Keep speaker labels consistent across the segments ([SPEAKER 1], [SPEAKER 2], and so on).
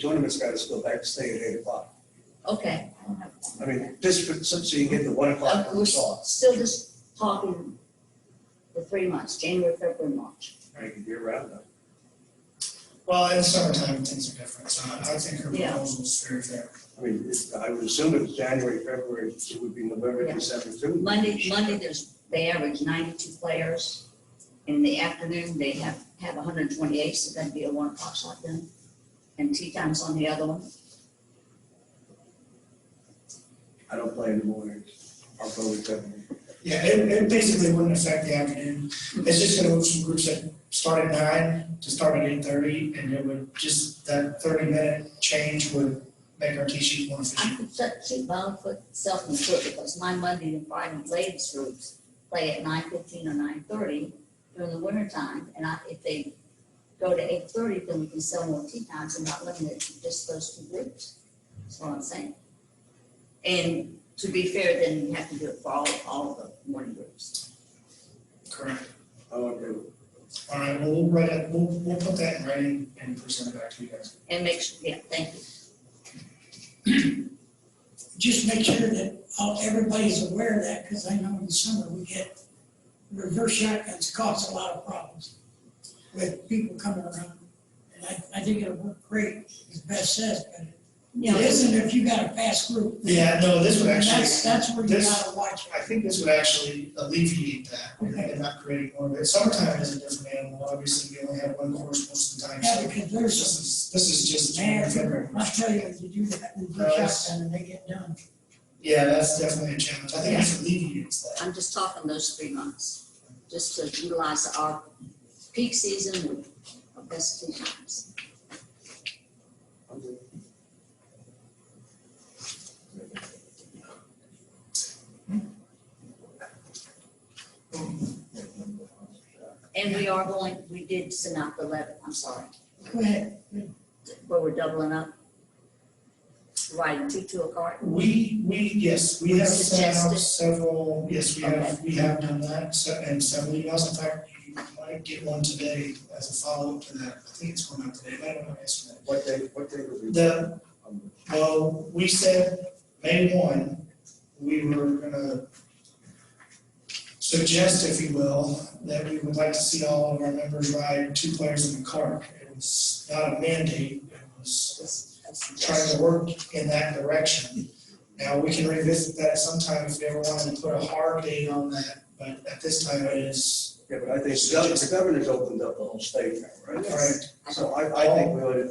[SPEAKER 1] tournament's gotta still back, stay at eight o'clock.
[SPEAKER 2] Okay,
[SPEAKER 1] I mean, just for, so so you get the one o'clock
[SPEAKER 2] Uh,
[SPEAKER 1] on
[SPEAKER 2] we're
[SPEAKER 1] the saw.
[SPEAKER 2] s- still just talking the three months, January, February, March.
[SPEAKER 1] I can year round though.
[SPEAKER 3] Well, in summertime, things are different, so I I think her
[SPEAKER 2] Yeah.
[SPEAKER 3] proposal is very fair.
[SPEAKER 1] I mean, it's, I would assume it's January, February, it would be November,
[SPEAKER 2] Yeah.
[SPEAKER 1] December too.
[SPEAKER 2] Monday, Monday, there's, they average ninety-two players. In the afternoon, they have, have hundred and twenty-eight, so that'd be a one o'clock shot then. And tea time's on the other one.
[SPEAKER 1] I don't play in the mornings. I'll go with them.
[SPEAKER 3] Yeah, it, it basically wouldn't affect the afternoon. It's just gonna move some groups that start at nine to start at eight thirty, and it would just, that thirty minute change would make our tee sheet more
[SPEAKER 2] I
[SPEAKER 3] efficient.
[SPEAKER 2] could set, keep my own foot, self in the foot because my Monday and Friday ladies groups play at nine fifteen or nine thirty during the winter time. And I, if they go to eight thirty, then we can sell more tea times and not limit it to just those two groups. That's what I'm saying. And to be fair, then you have to do it for all, all of the morning groups.
[SPEAKER 3] Correct.
[SPEAKER 1] I won't do
[SPEAKER 3] All right, well, we'll write it, we'll, we'll put that in writing and present it back to you guys.
[SPEAKER 2] And make sure, yeah, thank you.
[SPEAKER 4] just make sure that all, everybody's aware of that, because I know in the summer we get, reverse shotguns cause a lot of problems with people coming around. And I, I think it'll work great, as Beth says, but it isn't if you got a fast group.
[SPEAKER 3] Yeah, no, this would actually.
[SPEAKER 4] That's, that's where you
[SPEAKER 3] this-
[SPEAKER 4] gotta watch
[SPEAKER 3] I think this would actually alleviate that, and not create more, but summertime is a different animal, obviously, we only have one course most of the time,
[SPEAKER 4] it.
[SPEAKER 3] so.
[SPEAKER 4] Yeah, because
[SPEAKER 3] This
[SPEAKER 4] there's
[SPEAKER 3] is, this is just.
[SPEAKER 4] a man, I tell you, if you do that reverse shotgun and they get done.
[SPEAKER 3] Yeah, that's definitely a challenge. I think it's alleviates that.
[SPEAKER 2] I'm just talking those three months, just to utilize our peak season with our best tea times.
[SPEAKER 1] it.
[SPEAKER 2] And we are going, we did send out the letter, I'm sorry,
[SPEAKER 4] Go ahead,
[SPEAKER 2] where we're doubling up. Riding two to a cart.
[SPEAKER 3] We, we, yes, we have sent out
[SPEAKER 2] Suggested.
[SPEAKER 3] several, yes, we have, we have done that, so, and several emails, in fact, you might get one today as a follow-up to that. I think it's going out today, but I don't know yesterday.
[SPEAKER 1] What day, what day would be?
[SPEAKER 3] The, well, we said May one, we were gonna suggest, if you will, that we would like to see all of our members ride two players in the cart. It was not a mandate, it was
[SPEAKER 2] That's- that's the
[SPEAKER 3] trying
[SPEAKER 2] best.
[SPEAKER 3] to work in that direction. Now, we can revisit that sometime if they ever wanted to put a hard date on that, but at this time it is.
[SPEAKER 1] Yeah, but I think the gov- the governor's opened up the whole state now, right?
[SPEAKER 2] Yes, I
[SPEAKER 1] So I, I think we would,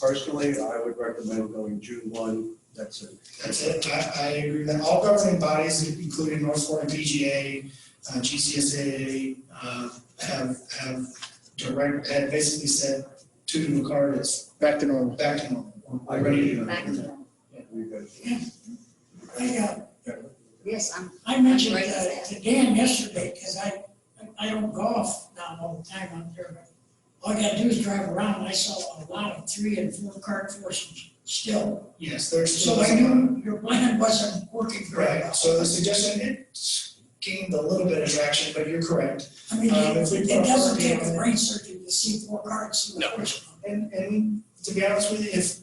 [SPEAKER 1] personally, I would recommend going June one, that's it.
[SPEAKER 3] That's it, I, I agree that all governing bodies, including North Florida PGA, uh, GCSA, uh, have, have direct, have basically said two to the card is. Back to normal. Back to normal. We're ready to go.
[SPEAKER 2] back to them.
[SPEAKER 1] We good.
[SPEAKER 4] I, uh,
[SPEAKER 2] Yes, I'm,
[SPEAKER 4] I mentioned uh, to Dan yesterday, because I, I don't golf now all the time out there, but all I gotta do is drive around, I saw a lot of three and four card forces still.
[SPEAKER 3] Yes, there's.
[SPEAKER 4] So I knew your plan wasn't working very
[SPEAKER 3] Right,
[SPEAKER 4] well.
[SPEAKER 3] so the suggestion, it gained a little bit of traction, but you're correct.
[SPEAKER 4] I mean,
[SPEAKER 3] Um,
[SPEAKER 4] it
[SPEAKER 3] if we
[SPEAKER 4] it doesn't
[SPEAKER 3] properly-
[SPEAKER 4] take a brain surgery to see four cards, see
[SPEAKER 3] No.
[SPEAKER 4] what which one.
[SPEAKER 3] And, and to be honest with you, if,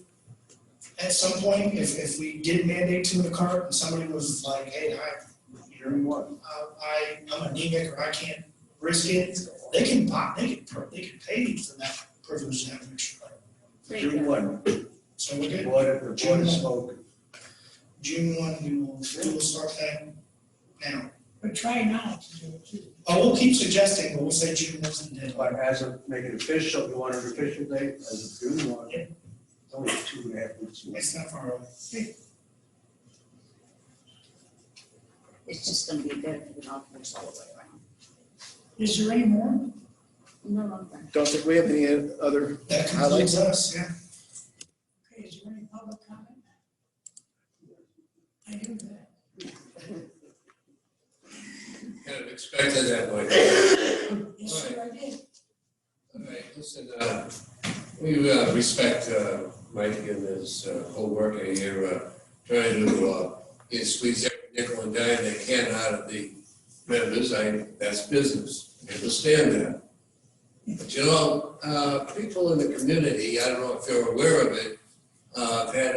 [SPEAKER 3] at some point, if, if we did mandate two in a cart and somebody was like, hey, I, you're,
[SPEAKER 1] June one.
[SPEAKER 3] uh, I, I'm anemic or I can't risk it, they can buy, they can, pur- they can pay for that privilege to have an extra cart.
[SPEAKER 2] there you
[SPEAKER 1] June
[SPEAKER 2] go.
[SPEAKER 1] one,
[SPEAKER 3] So
[SPEAKER 1] the
[SPEAKER 3] we're good.
[SPEAKER 1] board, the board
[SPEAKER 3] June
[SPEAKER 1] of
[SPEAKER 3] one.
[SPEAKER 1] smoke.
[SPEAKER 3] June one, we will, we will start that now.
[SPEAKER 4] But try now to do it too.
[SPEAKER 3] Oh, we'll keep suggesting, but we'll say June wasn't dead.
[SPEAKER 1] But as of, make it official, you want an official date, as of June one, it's only two and a half weeks. away.
[SPEAKER 3] It's not far away.
[SPEAKER 2] It's just gonna be better for the golf course all the way around.
[SPEAKER 4] Is there any more?
[SPEAKER 2] No, no, no.
[SPEAKER 5] Don't think we have any other,
[SPEAKER 3] That concludes us, yeah.
[SPEAKER 4] Okay, is there any public comment? I do that.
[SPEAKER 6] Kind of expected that way.
[SPEAKER 4] Yes, sir, I did.
[SPEAKER 6] All right, listen, uh, we uh, respect uh, Mike and his uh, whole work here, uh, trying to uh, you know, squeeze every nickel and dime they can out of the members. I, that's business. I understand that. But you know, uh, people in the community, I don't know if they're aware of it, Uh, I've had